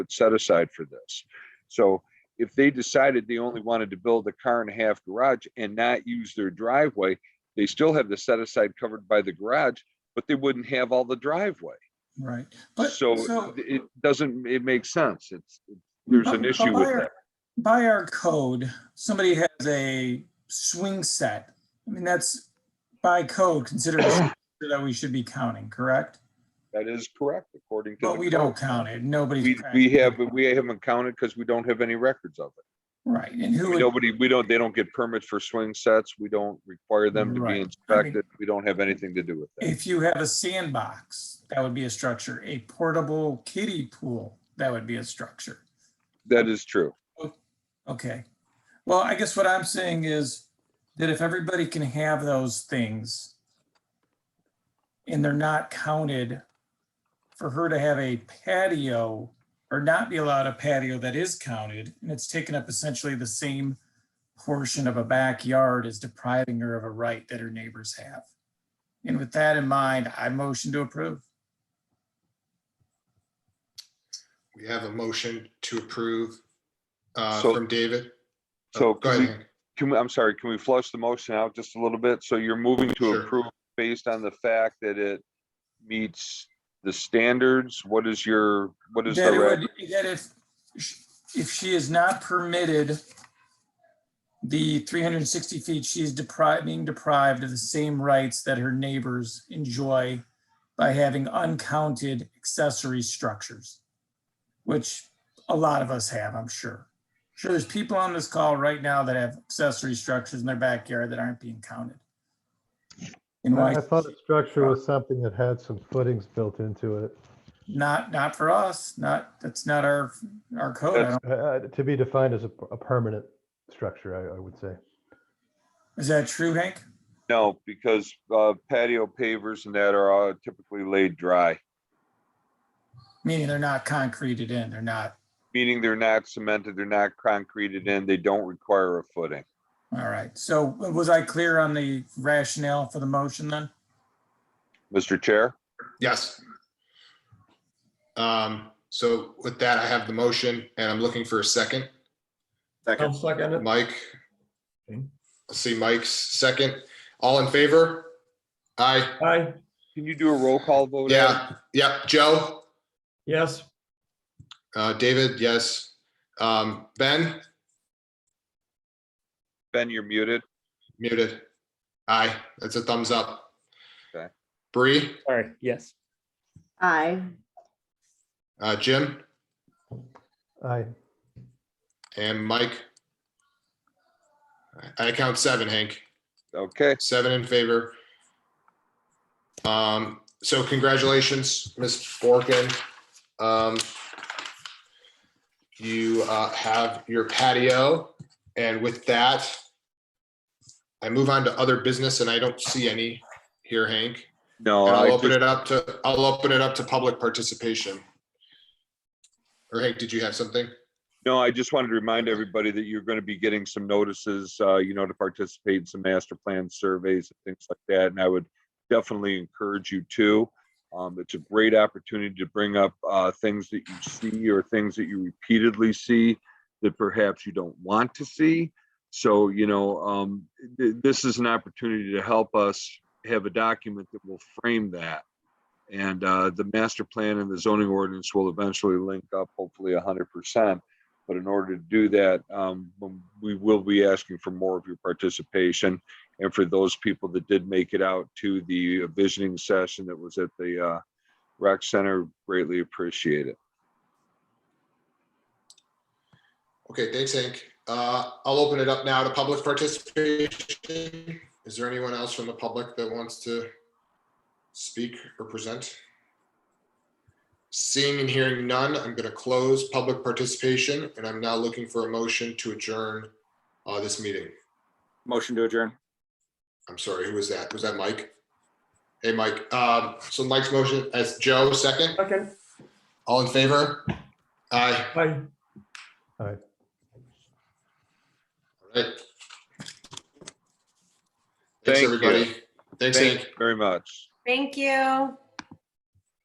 set aside for this. So if they decided they only wanted to build a car and a half garage and not use their driveway, they still have the set aside covered by the garage, but they wouldn't have all the driveway. Right, but So so. it doesn't, it makes sense. It's, there's an bu- issue with by our- that. By our code, somebody has a swing set. I mean, that's by code considered a swing set that we should be counting, correct? That is correct, according to. But the we code. don't count it. Nobody's. We, we practicing. have, we haven't counted because we don't have any records of it. Right, and who would, Nobody, we don't, they don't get permits for swing sets. We don't require them to Right. I be mean- inspected. We don't have anything to do with that. if you have a sandbox, that would be a structure. A portable kiddie pool, that would be a structure. That is true. Okay. Well, I guess what I'm saying is that if everybody can have those things and they're not counted, for her to have a patio or not be allowed a patio that is counted and it's taken up essentially the same portion of a backyard is depriving her of a right that her neighbors have. And with that in mind, I motion to approve. We have a motion to approve uh, So- from David. Oh, So Go can we- ahead. Hank. Can we, I'm sorry, can we flush the motion out just a little bit? So you're moving to Sure. approve based on the fact that it meets the standards? What is your, what is That the, it rec- would, that if, sh- if she is not permitted the three hundred and sixty feet, she's deprived, being deprived of the same rights that her neighbors enjoy by having uncounted accessory structures, which a lot of us have, I'm sure. Sure, there's people on this call right now that have accessory structures in their backyard that aren't being counted. And I why, I thought a structure was something that had some footings built into it, not, not for us, not, that's not our, our code. I That's- don't- uh, uh, to be defined as a, a permanent structure, I, I would say. Is that true, Hank? no, because uh, patio pavers and that are uh, typically laid dry, Meaning they're not concreted in, they're not, meaning they're not cemented, they're not concreted in, they don't require a footing. all right. So was I clear on the rationale for the motion then? Mr. Chair? Yes. Um, So with that, I have the motion and I'm looking for a second. I'll second it. Mike? Okay. I See Mike's second. All in favor? Aye. Aye, Can you do a roll call vote? Ed? Yeah, yep. Joe? yes, Uh, David, yes. Um, Ben? Ben, you're muted. Muted. Aye, that's a thumbs up. Okay. Bree, Sorry, yes. Aye, uh, Jim, I, and Mike. I count seven, Hank. Okay, Seven in favor. Um, so congratulations, Ms. Borkin. Um, you, uh, have your patio and with that, I move on to other business and I don't see any here, Hank. no, And I I'll open just- it up to, I'll open it up to public participation. Or Hank, did you have something? no, I just wanted to remind everybody that you're going to be getting some notices, uh, you know, to participate in some master plan surveys and things like that. And I would definitely encourage you to. Um, It's a great opportunity to bring up uh, things that you see or things that you repeatedly see that perhaps you don't want to see. So, you know, um, th- this is an opportunity to help us have a document that will frame that. And uh, the master plan and the zoning ordinance will eventually link up, hopefully hundred percent. But in order to do that, um, we will be asking for more of your participation. And for those people that did make it out to the visioning session that was at the uh, rec center, greatly appreciate it. Okay, thanks, Hank. Uh, I'll open it up now to public participation. Is there anyone else from the public that wants to speak or present? Seeing and hearing none, I'm going to close public participation, and I'm now looking for a motion to adjourn uh, this meeting. Motion to adjourn. I'm sorry, who was that? Was that Mike? Hey, Mike. Um, So Mike's motion as Joe, second. second, All in favor? Aye. aye. All right. Thank Thanks, you. everybody. Thank Thanks, Hank. you very much. thank you.